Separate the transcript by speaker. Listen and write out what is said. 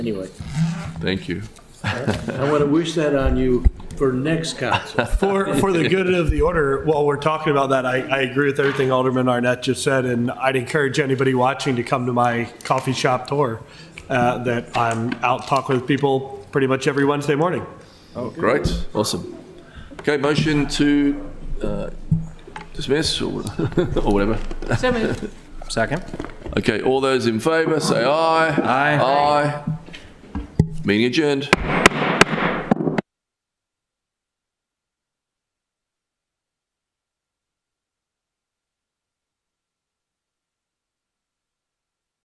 Speaker 1: Anyway,
Speaker 2: Thank you.
Speaker 1: I want to wish that on you for next council.
Speaker 3: For, for the good of the order, while we're talking about that, I, I agree with everything Alderman Arnett just said, and I'd encourage anybody watching to come to my coffee shop tour, uh, that I'm out talking with people pretty much every Wednesday morning.
Speaker 2: Oh, great. Awesome. Okay, motion to uh, dismiss or or whatever.
Speaker 4: So moved.
Speaker 5: Second.
Speaker 2: Okay, all those in favour, say aye. Aye. Aye. Meeting adjourned.